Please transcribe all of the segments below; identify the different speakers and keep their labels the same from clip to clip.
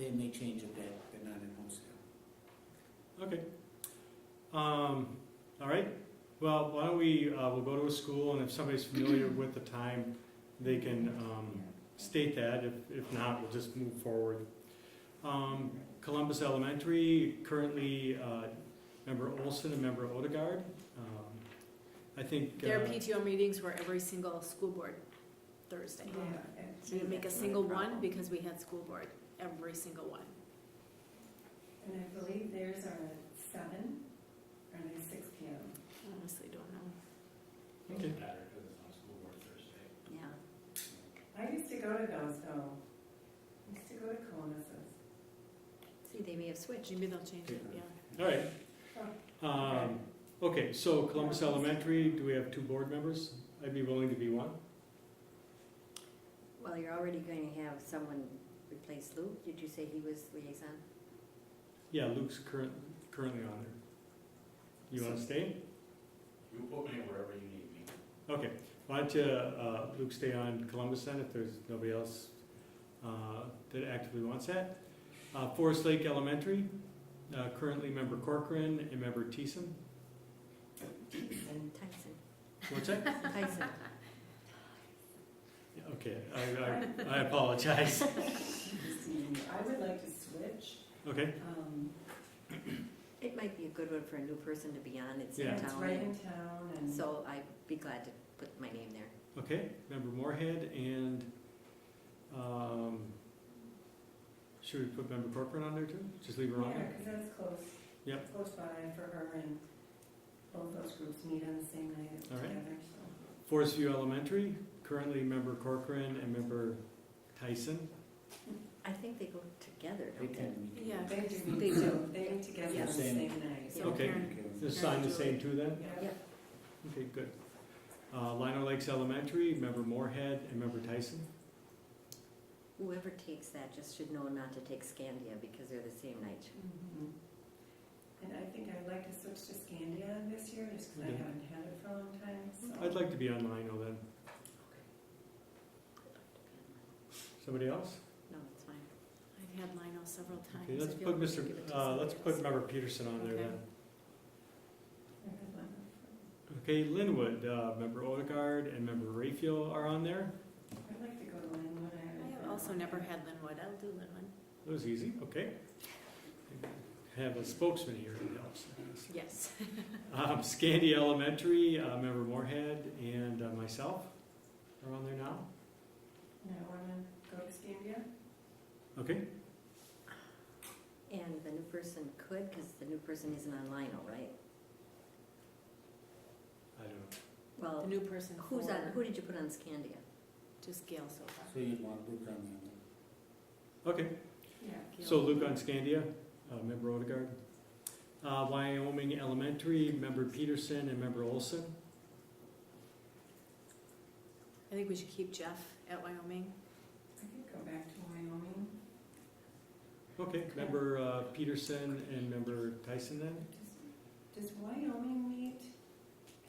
Speaker 1: any change of that, they're not in Homestead.
Speaker 2: Okay. Um, all right, well, why don't we, uh, we'll go to a school, and if somebody's familiar with the time, they can, um, state that, if, if not, we'll just move forward. Um, Columbus Elementary, currently, uh, member Olson and member Odegaard, um, I think.
Speaker 3: Their
Speaker 2: uh,
Speaker 3: PTO meetings were every single school board Thursday. We didn't make a single one because we had school board, every single one.
Speaker 4: And I believe theirs are at seven, or at six P M.
Speaker 5: Hmm.
Speaker 3: Honestly, don't know.
Speaker 2: Okay.
Speaker 6: matter because it's on school board Thursday.
Speaker 3: Yeah.
Speaker 4: I used to go to those though. I used to go to Columbus's.
Speaker 3: See, they may have switched. Maybe they'll change it, yeah.
Speaker 2: All right. Um, okay, so Columbus Elementary, do we have two board members? I'd be willing to be one.
Speaker 5: Well, you're already going to have someone replace Luke. Did you say he was liaison?
Speaker 2: Yeah, Luke's current, currently on there. You wanna stay?
Speaker 6: You put me wherever you need me.
Speaker 2: Okay, why don't you, uh, Luke stay on Columbus then if there's nobody else, uh, that actively wants that? Uh, Forest Lake Elementary, uh, currently member Corcoran and member Teeson.
Speaker 5: Tyson, Tyson,
Speaker 2: What's that?
Speaker 5: Tyson.
Speaker 2: Yeah, Okay, I, I, I apologize.
Speaker 4: I would like to switch.
Speaker 2: Okay,
Speaker 4: Um,
Speaker 5: It might be a good one for a new person to be on. It's
Speaker 2: Yeah.
Speaker 5: in
Speaker 4: It's right
Speaker 5: town.
Speaker 4: in town and.
Speaker 5: So I'd be glad to put my name there.
Speaker 2: okay, member Moorhead and, um, should we put member Corcoran on there too? Just leave her on
Speaker 4: Yeah,
Speaker 2: there?
Speaker 4: because that's close.
Speaker 2: Yep.
Speaker 4: It's Close by for her and both those groups meet on the same night
Speaker 2: All right.
Speaker 4: together, so.
Speaker 2: Forest View Elementary, currently member Corcoran and member Tyson.
Speaker 5: I think they go together,
Speaker 1: They
Speaker 5: don't they?
Speaker 1: tend to meet.
Speaker 3: Yeah.
Speaker 4: They do,
Speaker 5: They
Speaker 4: meet
Speaker 5: do.
Speaker 4: to- they meet together on the
Speaker 1: Same.
Speaker 4: same night.
Speaker 3: So
Speaker 2: Okay.
Speaker 3: Karen-
Speaker 1: Okay.
Speaker 2: Just sign the same two then?
Speaker 4: Yeah.
Speaker 5: Yep.
Speaker 2: Okay, good. Uh, Lino Lakes Elementary, member Moorhead and member Tyson.
Speaker 5: Whoever takes that just should know not to take Scandia because they're the same night.
Speaker 4: Mhm. And I think I'd like to switch to Scandia this year, just because I
Speaker 2: Okay.
Speaker 4: haven't had it for a long time, so.
Speaker 2: I'd like to be on Lino then. Somebody else?
Speaker 5: No, it's fine.
Speaker 3: I've had Lionel several times.
Speaker 2: Okay, let's
Speaker 3: I feel
Speaker 2: put
Speaker 3: we should
Speaker 2: Mr.,
Speaker 3: give it to
Speaker 2: uh, let's
Speaker 3: somebody
Speaker 2: put member Peterson on there then.
Speaker 4: I have one.
Speaker 2: Okay, Linwood, uh, member Odegaard and member Rayfield are on there.
Speaker 4: I'd like to go to Linwood.
Speaker 3: else. I
Speaker 4: haven't
Speaker 3: have
Speaker 4: been.
Speaker 3: also never had Linwood. I'll do Linwood.
Speaker 2: That was easy, okay. Have a spokesman here, it helps.
Speaker 3: Yes.
Speaker 2: Um, Scandia Elementary, uh, member Moorhead and uh, myself are on there now.
Speaker 4: And I want to go to Scandia.
Speaker 2: Okay,
Speaker 5: And the new person could, because the new person isn't on Lionel, right?
Speaker 2: I don't know.
Speaker 3: The
Speaker 5: Well,
Speaker 3: new person
Speaker 5: who's on,
Speaker 3: for,
Speaker 5: who did you put on Scandia?
Speaker 3: just Gail so far.
Speaker 1: So you'd want Luke on there.
Speaker 2: Okay,
Speaker 4: Yeah.
Speaker 3: Gail.
Speaker 2: so Luke on Scandia, uh, member Odegaard. Uh, Wyoming Elementary, member Peterson and member Olson.
Speaker 3: I think we should keep Jeff at Wyoming.
Speaker 4: I could go back to Wyoming.
Speaker 2: Okay, member uh, Peterson and member Tyson then?
Speaker 4: Does- Does Wyoming meet,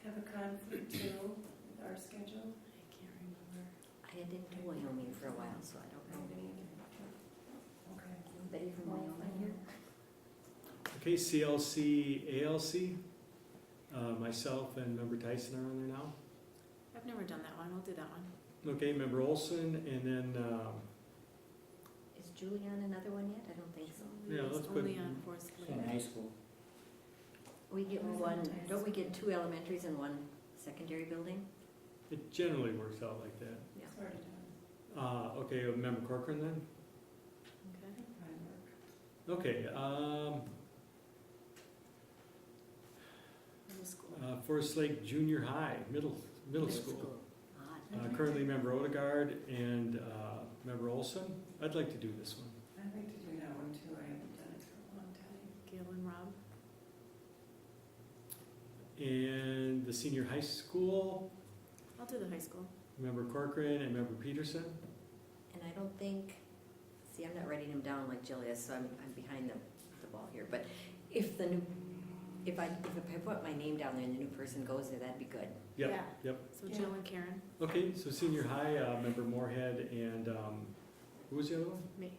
Speaker 4: have a conflict too, with our schedule?
Speaker 3: I can't remember.
Speaker 5: I didn't do Wyoming for a while, so I
Speaker 4: I
Speaker 5: don't
Speaker 4: don't
Speaker 5: know.
Speaker 4: think either. Okay.
Speaker 5: Betty from Wyoming here?
Speaker 2: Okay, CLC, ALC, uh, myself and member Tyson are on there now.
Speaker 3: I've never done that one. I'll do that one.
Speaker 2: Okay, member Olson and then, um,
Speaker 5: Is Julie on another one yet? I don't think so.
Speaker 2: Yeah,
Speaker 3: It's
Speaker 2: let's put-
Speaker 3: Only on Forest
Speaker 1: So in
Speaker 3: Lake.
Speaker 1: high school,
Speaker 5: We get
Speaker 4: Who's
Speaker 5: one,
Speaker 4: on the
Speaker 5: don't we get
Speaker 4: highest?
Speaker 5: two elementaries and one secondary building?
Speaker 2: it generally works out like that.
Speaker 5: Yeah.
Speaker 4: Sort of done.
Speaker 2: Uh, Okay, member Corcoran then?
Speaker 3: Okay.
Speaker 4: I work.
Speaker 2: Okay, um,
Speaker 3: Middle school.
Speaker 2: uh, Forest Lake Junior High, middle, middle school.
Speaker 5: Odd.
Speaker 2: Uh, Currently member Odegaard and uh, member Olson. I'd like to do this one.
Speaker 4: I'd like to do that one too, I haven't done it for a long time.
Speaker 3: Gail and Rob.
Speaker 2: And the senior high school,
Speaker 3: I'll do the high school.
Speaker 2: member Corcoran and member Peterson.
Speaker 5: And I don't think, see, I'm not writing them down like Jill is, so I'm, I'm behind the, the ball here. But if the new, if I, if I put my name down there and the new person goes there, that'd be good.
Speaker 2: Yep,
Speaker 3: Yeah.
Speaker 2: yep.
Speaker 3: So Jill and Karen,
Speaker 2: Okay, so senior high, uh, member Moorhead and, um, who was the other one?
Speaker 3: me.